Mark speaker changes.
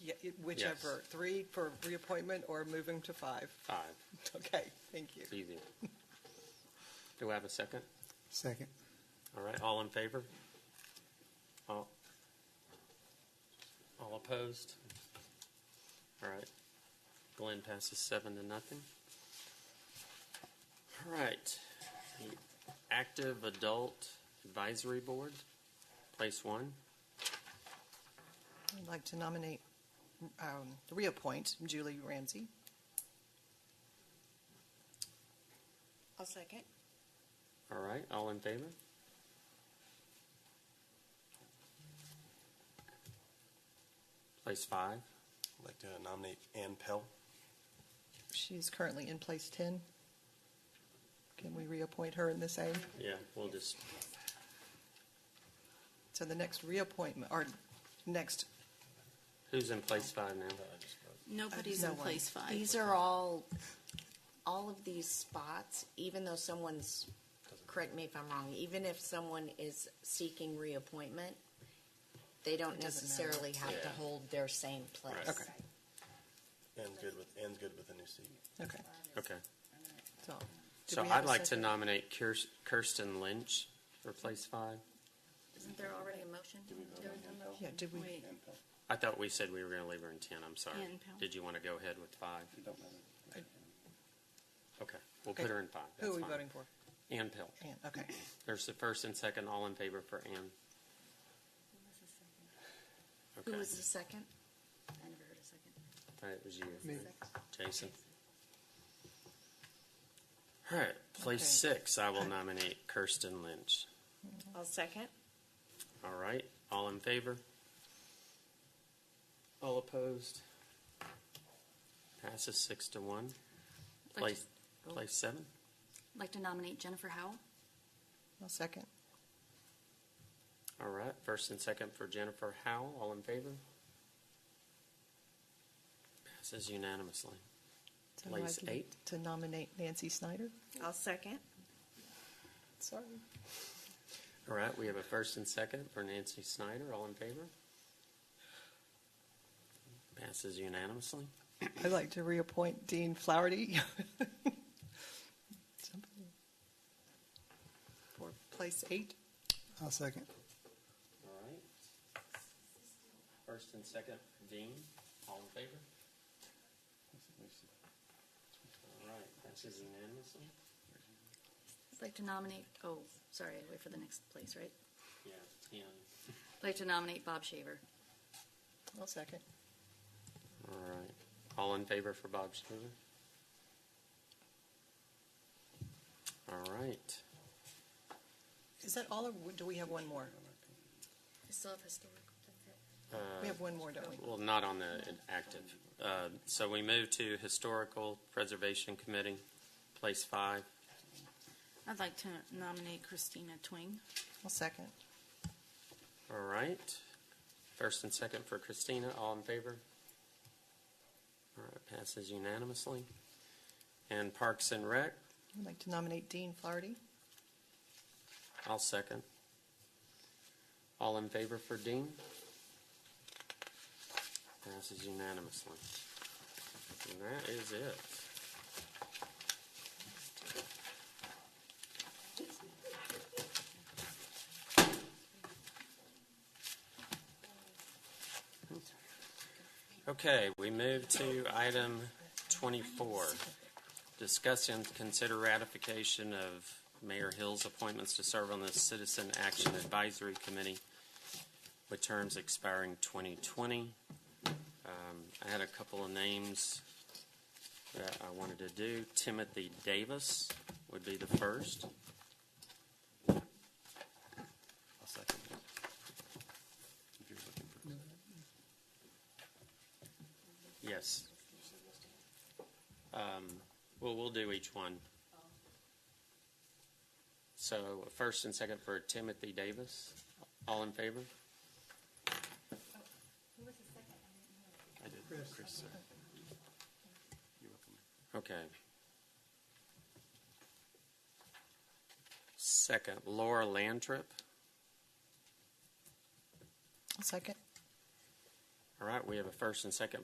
Speaker 1: Whichever, three for reappointment or moving to five.
Speaker 2: Five,
Speaker 1: Okay, thank you.
Speaker 2: it's easy. Do I have a second?
Speaker 3: Second.
Speaker 2: All right, all in favor? All, all opposed? All right, Glenn passes seven to nothing. All right, the Active Adult Advisory Board, place one.
Speaker 1: I'd like to nominate, um, reappoint Julie Ramsey.
Speaker 4: I'll second.
Speaker 2: All right, all in favor? Place five.
Speaker 5: I'd like to nominate Ann Pell.
Speaker 1: She's currently in place 10. Can we reappoint her in the same?
Speaker 2: Yeah, we'll just,
Speaker 1: So the next reappointment, or next,
Speaker 2: who's in place five now?
Speaker 1: Uh,
Speaker 6: Nobody's
Speaker 1: No
Speaker 6: in
Speaker 1: one.
Speaker 6: place five.
Speaker 4: These are all, all of these spots, even though someone's, correct me if I'm wrong, even if someone is seeking reappointment, they don't
Speaker 1: It doesn't matter.
Speaker 4: necessarily have to
Speaker 2: Yeah.
Speaker 4: hold their same place.
Speaker 2: Right. Okay.
Speaker 5: Ann's good with, Ann's good with a new seat.
Speaker 1: okay,
Speaker 2: Okay.
Speaker 1: so. do
Speaker 2: So
Speaker 1: we have
Speaker 2: I'd
Speaker 1: a
Speaker 2: like to
Speaker 1: second?
Speaker 2: nominate Kirs- Kirsten Lynch for place five.
Speaker 4: Isn't there already a motion?
Speaker 1: Yeah, did we,
Speaker 6: Wait,
Speaker 2: I thought we said we were going to leave her in ten, I'm sorry.
Speaker 6: Ann Powell.
Speaker 2: Did you want to go ahead with five?
Speaker 1: I-
Speaker 2: Okay, we'll
Speaker 1: Okay.
Speaker 2: put her in five.
Speaker 1: who are
Speaker 2: That's
Speaker 1: we
Speaker 2: fine.
Speaker 1: voting for?
Speaker 2: Ann Pill.
Speaker 1: Ann, okay.
Speaker 2: There's the first and second, all in favor for Ann.
Speaker 4: Who
Speaker 2: Okay.
Speaker 4: was the second?
Speaker 2: All right, It was you,
Speaker 3: Me.
Speaker 2: Jason. All right, place six, I will nominate Kirsten Lynch.
Speaker 4: I'll second.
Speaker 2: All right, all in favor? All opposed? Passes six to one.
Speaker 6: I'd like
Speaker 2: Place, place seven?
Speaker 6: to- like to nominate Jennifer Howell.
Speaker 1: I'll second.
Speaker 2: All right, first and second for Jennifer Howell, all in favor? Passes unanimously.
Speaker 1: So I'd
Speaker 2: Place
Speaker 1: like you
Speaker 2: eight.
Speaker 1: To nominate Nancy Snyder.
Speaker 4: I'll second.
Speaker 1: Sorry.
Speaker 2: All right, we have a first and second for Nancy Snyder, all in favor? Passes unanimously.
Speaker 1: I'd like to reappoint Dean Flaherty. Somebody. For place eight.
Speaker 3: I'll second.
Speaker 2: All right. First and second, Dean, all in favor? All right, passes unanimously?
Speaker 6: I'd like to nominate, oh, sorry, I wait for the next place, right?
Speaker 2: Yeah, yeah.
Speaker 6: I'd like to nominate Bob Shaver.
Speaker 1: I'll second.
Speaker 2: All right, all in favor for Bob Stover? All right,
Speaker 1: Is that all, or do we have one more?
Speaker 6: I still have historical.
Speaker 1: We have one more, don't we?
Speaker 2: well, not on the active. Uh, So we move to Historical Preservation Committee, place five.
Speaker 7: I'd like to nominate Christina Twing.
Speaker 1: I'll second.
Speaker 2: All right. First and second for Christina, all in favor? All right, passes unanimously. And Parks and Rec,
Speaker 1: I'd like to nominate Dean Flaherty.
Speaker 2: I'll second. All in favor for Dean? Passes unanimously. And that is it. Okay, we move to item 24. Discuss and consider ratification of Mayor Hill's appointments to serve on the Citizen Action Advisory Committee with terms expiring 2020. Um, I had a couple of names that I wanted to do. Timothy Davis would be the first.
Speaker 5: I'll second that. If you're looking for a second.
Speaker 2: Yes. Um, Well, we'll do each one. So first and second for Timothy Davis. All in favor?
Speaker 5: Oh, I did, Chris, sorry. You're welcome.
Speaker 2: Okay. Second, Laura Landrip.
Speaker 1: I'll second.
Speaker 2: All right, we have a first and second